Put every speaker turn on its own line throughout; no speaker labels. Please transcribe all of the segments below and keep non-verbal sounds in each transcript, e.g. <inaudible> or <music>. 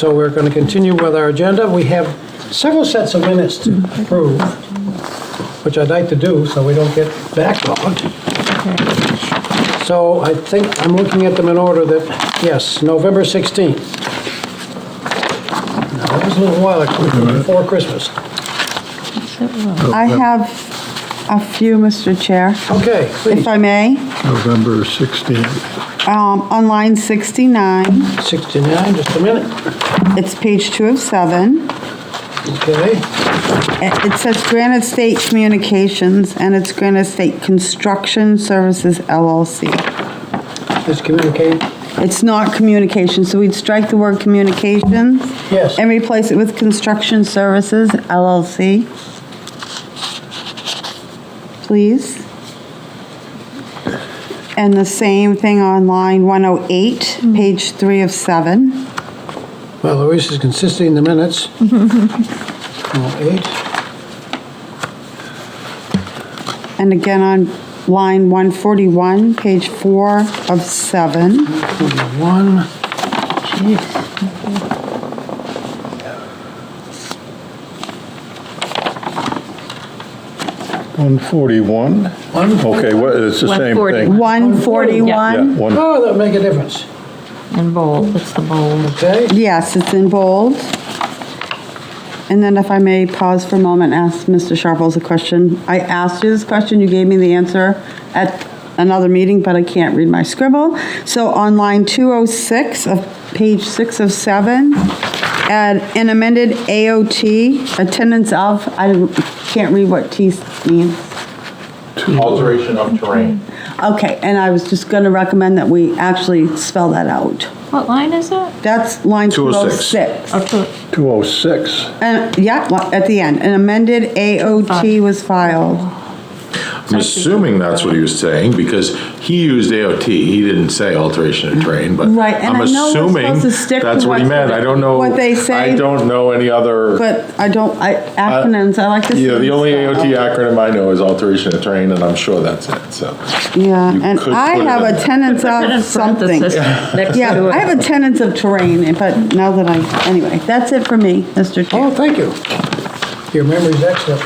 So we're going to continue with our agenda. We have several sets of minutes to approve, which I'd like to do so we don't get backlogged. So I think I'm looking at them in order that, yes, November 16th. Now, That was a little while ago, before Christmas.
I have a few, Mr. Chair,
Okay,
if
please,
I may.
November 16th.
Um, On line 69,
69, just a minute.
it's page two of seven.
Okay,
It it says Granite State Communications, and it's Granite State Construction Services LLC.
just communicate.
It's not communication, so we'd strike the word communications.
Yes.
And replace it with Construction Services LLC. Please. And the same thing on line 108, page 3 of 7.
Well, Louise is consistent in the
<laughs>
minutes. Oh, Eight,
And again on line 141, page 4 of 7.
one.
One forty-one?
One-
Okay, what, it's the same
140.
thing.
141,
One,
Oh, that'll make a difference.
In bold, it's the bold.
Okay,
yes, it's in bold. And then if I may pause for a moment, and ask Mr. Sharples a question. I asked you this question, you gave me the answer at another meeting, but I can't read my scribble. So on line 206 of page 6 of 7, add an amended AOT, attendance of, I can't read what T means.
alteration of terrain.
Okay, and I was just going to recommend that we actually spell that out.
What line is it?
That's line 206.
Oh, two,
two oh six.
And, yeah, li- at the end, an amended AOT was filed.
I'm assuming that's what he was saying, because he used AOT, he didn't say alteration of terrain, but
Right, and
I'm
I know we're
assuming
supposed to stick to
that's what he
what's-
meant, I don't know.
what they say.
I don't know any other,
But I don't, I, acronyms, I like to. see
yeah, the only
them.
AOT acronym I know is alteration of terrain, and I'm sure that's it, so.
Yeah,
you
and
could
I
put it
have
in
a
there.
tenants
Put it in
of something.
parentheses next
Yeah,
to it.
I have a tenants of terrain, but now that I, anyway, that's it for me, Mr.
oh,
Chair.
thank you. Your memory's excellent.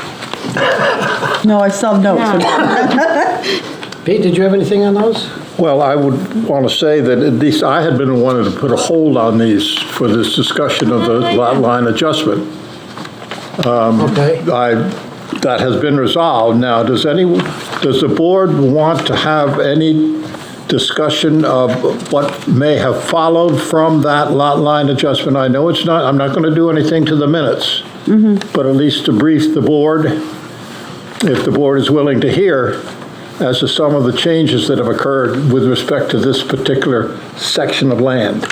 No, I still have notes.
Yeah.
Pete, did you have anything on those?
Well, I would want to say that at least I had been wanting to put a hold on these for this discussion of the lot line adjustment.
Okay,
I, that has been resolved. Now, does any, does the board want to have any discussion of what may have followed from that lot line adjustment? I know it's not, I'm not going to do anything to the minutes, but at least to brief the board, if the board is willing to hear, as to some of the changes that have occurred with respect to this particular section of land.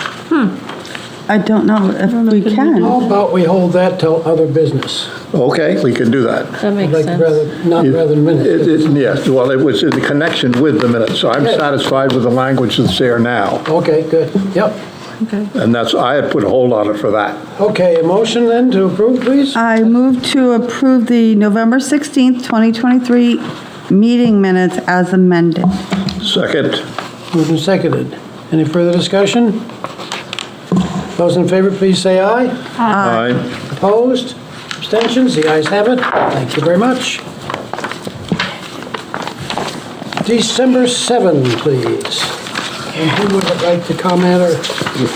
I don't know if we can.
how about we hold that till other business?
Okay, we can do that.
That
I'd
makes
like to
sense.
rather, not rather than
It-
minutes.
it- Yes, well, it was in connection with the minutes, so I'm
Good.
satisfied with the language that's there now,
Okay, good, yep.
and that's, I had put a hold on it for that.
Okay, a motion then to approve, please?
I move to approve the November 16th, 2023 meeting minutes as amended.
Second,
Moved and seconded. Any further discussion? Those in favor, please say aye.
aye.
Opposed? Abstentions? The ayes have it. Thank you very much. December 7, please. And who would like to comment or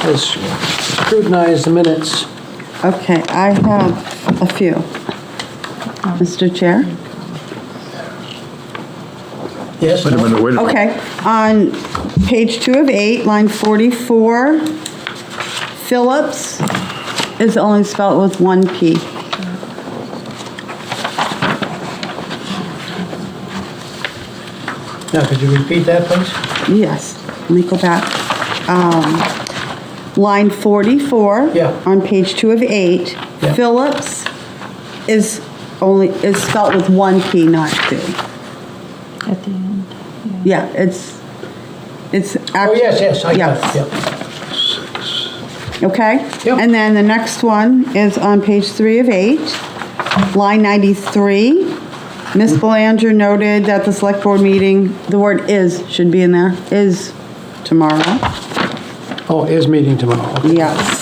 has scrutinized the minutes?
Okay, I have a few. Mr. Chair?
Yes?
Wait a minute, wait a minute.
Okay, on page two of eight, line 44, Phillips is only spelled with one P.
Now, could you repeat that, please?
Yes, let me go back. Um, Line 44.
Yeah.
On page two of eight,
Yeah.
Phillips is only, is spelled with one P, not two.
At the end.
Yeah, it's, it's.
Oh, yes, yes, I got
Yes.
it, yeah.
Okay?
Yep.
And then the next one is on page three of eight, line 93. Ms. Belanger noted that the select board meeting, the word "is" should be in there, is tomorrow.
Oh, is meeting tomorrow.
Yes.